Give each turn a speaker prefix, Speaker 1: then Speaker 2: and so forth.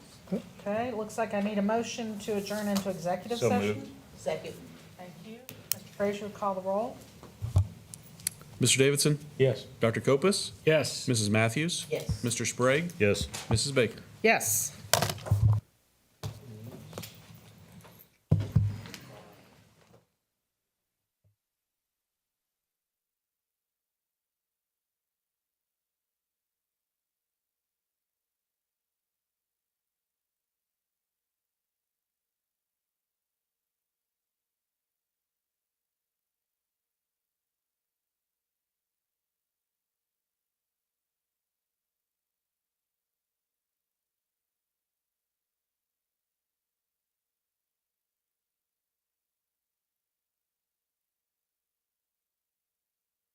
Speaker 1: Okay, it looks like I need a motion to adjourn into executive
Speaker 2: So
Speaker 1: session.
Speaker 2: moved.
Speaker 3: Second.
Speaker 1: Thank you. Mr. Frazier, call the roll.
Speaker 4: Mr. Davidson,
Speaker 2: Yes.
Speaker 4: Dr. Copus,
Speaker 5: Yes.
Speaker 4: Mrs. Matthews,
Speaker 3: Yes.
Speaker 4: Mr. Sprague,
Speaker 2: Yes.
Speaker 4: Mrs. Baker.
Speaker 1: Yes.